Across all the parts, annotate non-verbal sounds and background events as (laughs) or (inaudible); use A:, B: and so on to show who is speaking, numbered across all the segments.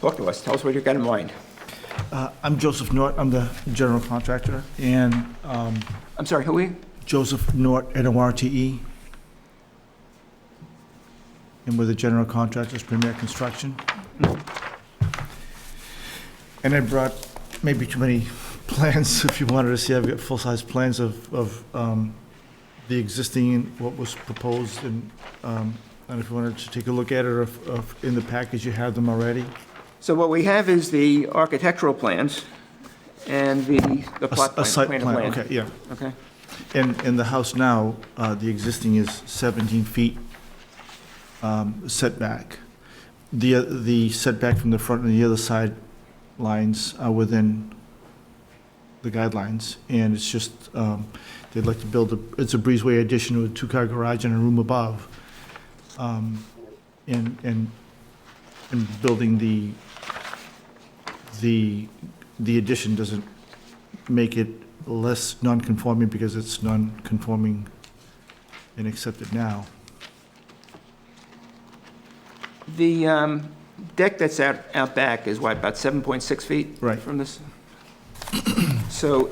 A: Talk to us, tell us what you got in mind.
B: Uh, I'm Joseph Nort, I'm the general contractor, and um,
A: I'm sorry, who are you?
B: Joseph Nort, N-O-R-T-E. And we're the general contractors, Premier Construction. And I brought maybe too many (laughs) plans, if you wanted to see, I've got full-size plans of, of um, the existing, and what was proposed, and, um, and if you wanted to take a look at it, or if- or if in the package you have them already.
A: So what we have is the architectural plans and the, the
B: A s-
A: plot
B: A
A: plan.
B: site
A: of
B: plan, okay, yeah.
A: Okay.
B: And, and the house now, uh, the existing is 17 feet um, setback. The, oth- the setback from the front and the other side lines are within the guidelines, and it's just, um, they'd like to build, a it's a breezeway addition with a two-car garage and a room above. Um, And, and, and building the, the, the addition doesn't make it less non-conforming because it's non-conforming and accepted now.
A: The um, deck that's out, out back is what, about 7.6 feet?
B: Right.
A: From this? (coughs) So,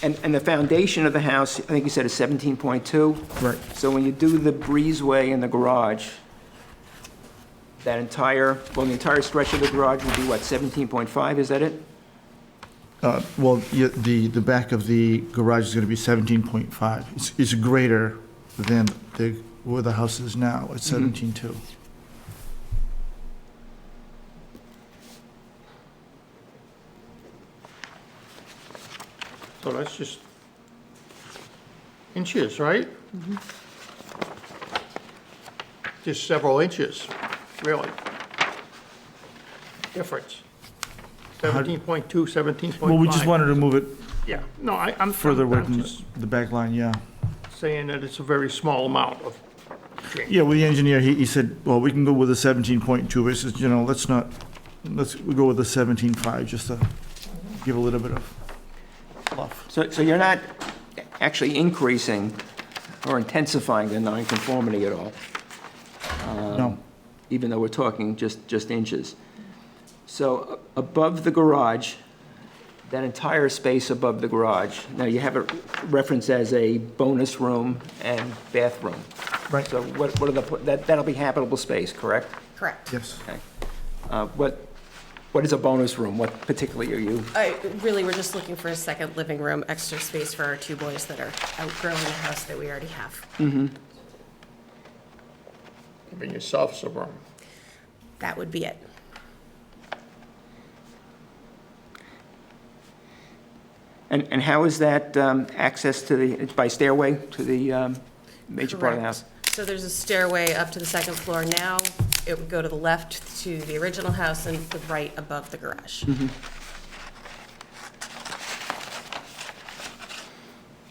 A: and, and the foundation of the house, I think you said is 17.2?
B: Right.
A: So when you do the breezeway in the garage, that entire, well, the entire stretch of the garage would be what, 17.5, is that it?
B: Well, yeah, the, the back of the garage is going to be 17.5. It's, it's greater than the, where the house is now,
C: Mm-hmm.
B: it's
A: Mhm.
B: 17.2.
C: So that's just inches, right?
B: Mm-hmm.
C: Just several inches, really. Difference.
B: How-
C: 17.2, 17.5.
B: Well, we just wanted to move it
C: Yeah, no, I, I'm.
B: further away
C: I'm
B: from the-
C: just
B: the back line, yeah.
C: Saying that it's a very small amount of,
B: Yeah, well, the engineer, he, he said, well, we can go with a 17.2, I says, you know, let's not, let's go with a 17.5, just to give a little bit of fluff.
A: So, so you're not actually increasing or intensifying the nonconformity at all?
B: No,
C: Um,
A: even though we're talking just, just inches. So a- above the garage, that entire space above the garage, now you have it referenced as a bonus room and bathroom.
B: Right.
A: So what, what are the, that, that'll be habitable space, correct?
D: Correct.
B: yes.
A: Okay. Uh, What, what is a bonus room? What particularly are you,
D: I, really, we're just looking for a second living room, extra space for our two boys that are outgrowing the house that we already have.
C: giving yourself um, some room.
D: That would be it.
A: and, and how is that um, access to the, it's by stairway to the um, major part of the
D: Correct.
A: house?
D: So there's a stairway up to the second floor now. It would go to the left to the original house and the right above the garage.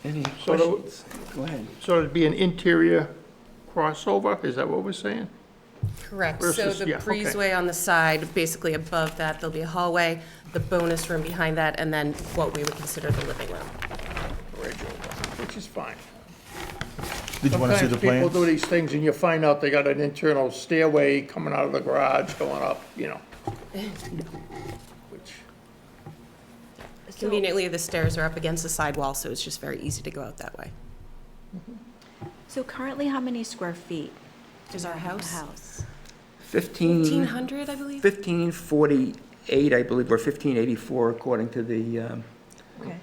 A: Any
C: So the-
A: questions? Go ahead.
C: So it'd be an interior crossover, is that what we're saying?
D: Correct. So
C: Versus-
D: the
C: yeah, okay.
D: breezeway on the side, basically above that, there'll be a hallway, the bonus room behind that, and then what we would consider the living room.
C: Bridge over, Which is fine.
B: Did you want to see the plan?
C: Sometimes people do these things and you find out they got an internal stairway coming out of the garage, going up, you know. Which,
D: Conveniently, the stairs are up against the sidewall, so it's just very easy to go out that way.
E: So currently, how many square feet
D: Is our
E: of
D: house?
E: house?
A: 15.
D: 1,500, I believe?
A: 1548, I believe, or 1584, according to the, um,
E: Okay.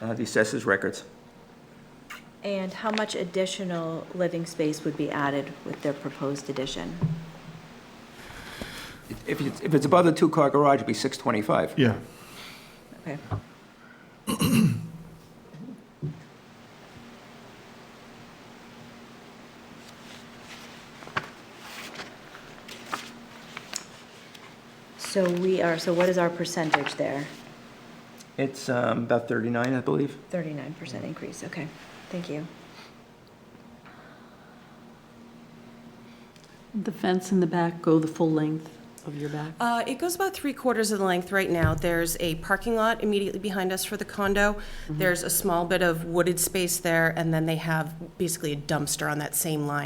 A: uh, the assessors records.
E: And how much additional living space would be added with their proposed addition?
A: If it's, if it's above the two-car garage, it'd be
C: e-
A: 625.
B: Yeah.
E: Okay. So we are, so what is our percentage there?
A: It's um, about 39, I believe.
E: 39% increase, okay, thank you.
F: The fence in the back go the full length of your back?
D: Uh, It goes about three quarters of the length right now. There's a parking lot immediately behind us for the condo. There's a small bit of wooded space there, and then they have basically a dumpster on that same line.